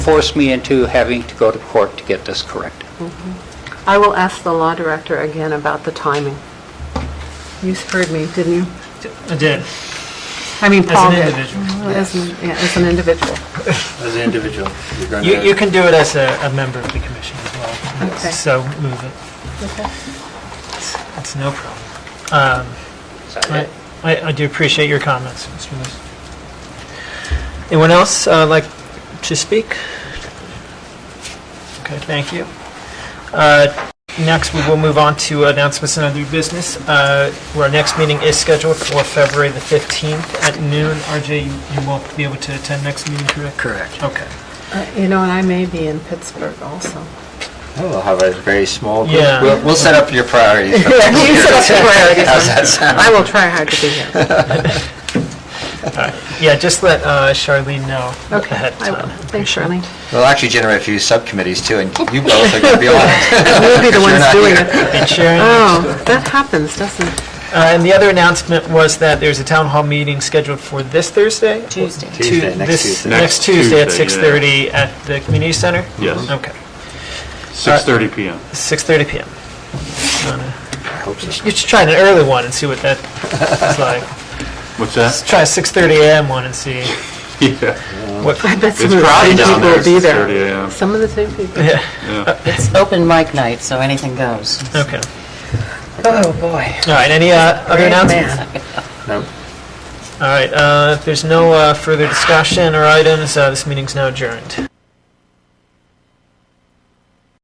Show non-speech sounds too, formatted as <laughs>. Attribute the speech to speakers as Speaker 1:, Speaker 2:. Speaker 1: forced me into having to go to court to get this corrected.
Speaker 2: I will ask the law director again about the timing. You heard me, didn't you?
Speaker 3: I did,
Speaker 2: I mean,
Speaker 3: as
Speaker 2: Paul
Speaker 3: an
Speaker 2: did.
Speaker 3: individual.
Speaker 2: As an- yeah, as an individual.
Speaker 4: As an individual, you're going
Speaker 3: You,
Speaker 4: to...
Speaker 3: you can do it as a, a member of the commission as well.
Speaker 2: Okay.
Speaker 3: So move it. It's- It's no problem. Um, I, I I do appreciate your comments, Mr. Lewis. Anyone else uh, like to speak? Okay, thank you. Uh, Next, we will move on to announcements and other business. Uh, Our next meeting is scheduled for February the 15th at noon. RJ, you- you won't be able to attend next meeting, correct?
Speaker 4: Correct.
Speaker 3: Okay.
Speaker 2: Uh, You know, and I may be in Pittsburgh also.
Speaker 4: We'll have a very small group.
Speaker 3: Yeah.
Speaker 4: We'll, we'll set up your priorities. <laughs> for-
Speaker 2: <laughs> You said that's where I was.
Speaker 4: How's that sound?
Speaker 2: I will try hard to be
Speaker 4: <laughs>
Speaker 2: here.
Speaker 3: Yeah, just let uh, Charlene know ahead
Speaker 2: Okay,
Speaker 3: of
Speaker 2: I will.
Speaker 3: time.
Speaker 2: Thanks,
Speaker 4: <laughs>
Speaker 2: Shirley.
Speaker 4: We'll actually generate a few subcommittees too, and you both are going to be on <laughs> it.
Speaker 2: We'll be the
Speaker 4: Because you're
Speaker 2: ones
Speaker 4: not
Speaker 2: doing
Speaker 4: here.
Speaker 2: it.
Speaker 3: And Sharon,
Speaker 2: Oh, that happens, doesn't it?
Speaker 3: Uh, And the other announcement was that there's a town hall meeting scheduled for this Thursday? Tuesday.
Speaker 4: Tuesday, next Tuesday.
Speaker 3: Next
Speaker 5: Next
Speaker 3: Tuesday at
Speaker 5: Tuesday,
Speaker 3: 6:30 at the community center?
Speaker 5: Yes.
Speaker 3: Okay,
Speaker 5: 6:30 PM.
Speaker 3: 6:30 PM. You should try an early one and see what that is like.
Speaker 5: What's
Speaker 3: Let's try a 6:30 AM one and see.
Speaker 5: <laughs> Yeah.
Speaker 3: what.
Speaker 2: I bet some
Speaker 5: It's
Speaker 2: of the same
Speaker 5: crowded down
Speaker 2: people
Speaker 5: there.
Speaker 2: will be there.
Speaker 5: 6:30 a.m.
Speaker 2: Some of the same people.
Speaker 3: Yeah,
Speaker 6: It's open mic night, so anything goes.
Speaker 3: okay.
Speaker 6: Oh, boy.
Speaker 3: All right, any uh, other announcements?
Speaker 4: No.
Speaker 3: All right, uh, if there's no uh, further discussion or items, uh, this meeting's now adjourned.